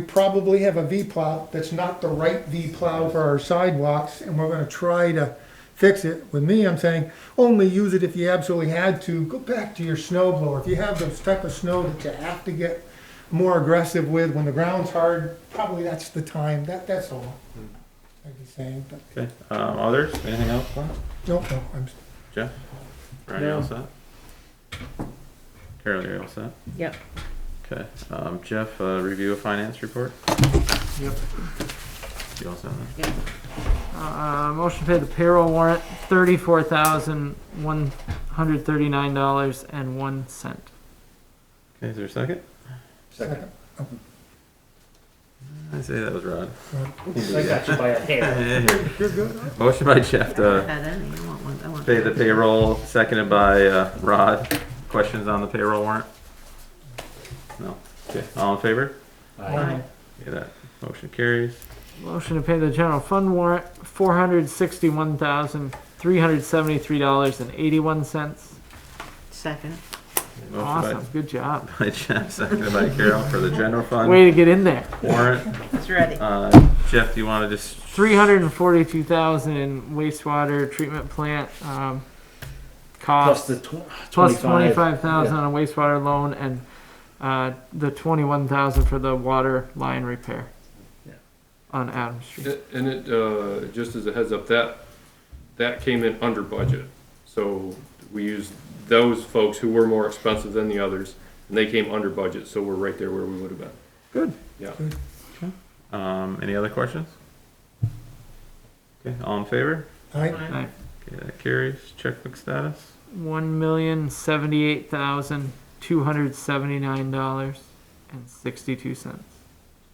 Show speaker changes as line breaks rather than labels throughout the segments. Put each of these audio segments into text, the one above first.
We probably have a V plow that's not the right V plow for our sidewalks, and we're gonna try to fix it. With me, I'm saying, only use it if you absolutely had to, go back to your snow blower. If you have those type of snow that you have to get more aggressive with when the ground's hard, probably that's the time, that, that's all. I'd be saying, but,
Okay, um, others, anything else, Glenn?
no, no, I'm,
Jeff? Ryan, you all set? Carol, you all set?
Yep.
Okay, um, Jeff, uh, review of finance report?
Yep.
You all set? then?
Uh, motion to pay the payroll warrant, thirty-four thousand, one hundred thirty-nine dollars and one cent.
Okay, is there a second?
second,
I say that was Rod.
I got you by a hair.
you're good?
Motion by Jeff
Put
to
that in. I want one- I want
pay the
one.
payroll, seconded by, uh, Rod. Questions on the payroll warrant? No? Okay, all in favor?
Aye.
Okay, that motion carries.
Motion to pay the general fund warrant, four hundred sixty-one thousand, three hundred seventy-three dollars and eighty-one cents.
Second.
Motion by-
Awesome, good job.
By Jeff, seconded by Carol for the general fund
Way to get in there.
warrant.
It's ready.
Uh, Jeff, do you wanna just?
Three hundred and forty-two thousand in wastewater treatment plant, um, cost.
Plus the tw-
plus
25.
twenty-five thousand on a wastewater loan and, uh, the twenty-one thousand for the water line repair.
Yeah.
On Adams Street.
A- And it, uh, just as a heads up, that, that came in under budget. So we used those folks who were more expensive than the others, and they came under budget, so we're right there where we would have been.
Good.
Yeah.
Um, any other questions? Okay, all in favor?
Aye.
Aye.
Okay, that carries. Checkbook status.
One million seventy-eight thousand two hundred seventy-nine dollars and sixty-two cents.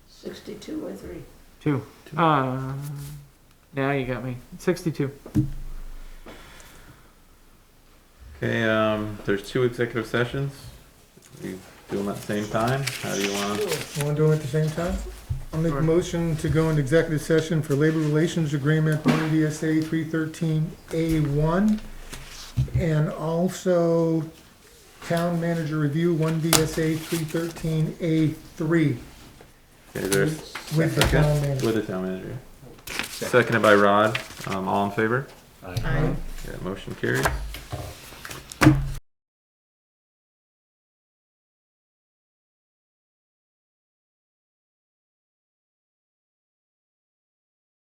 Sixty-two or three.
Two.
Two.
Uh, now you got me. Sixty-two.
Okay, um, there's two executive sessions. We do them at the same time. How do you want?
You wanna do it at the same time? I'll make a
Sure.
motion to go into executive session for labor relations agreement, E one DSA three thirteen A one. And also town manager review, one DSA three thirteen A three
Okay, there's
with the town manager.
with the town manager. Seconded by Rod. Um, all in favor?
Aye.
Aye.
Yeah, motion carries.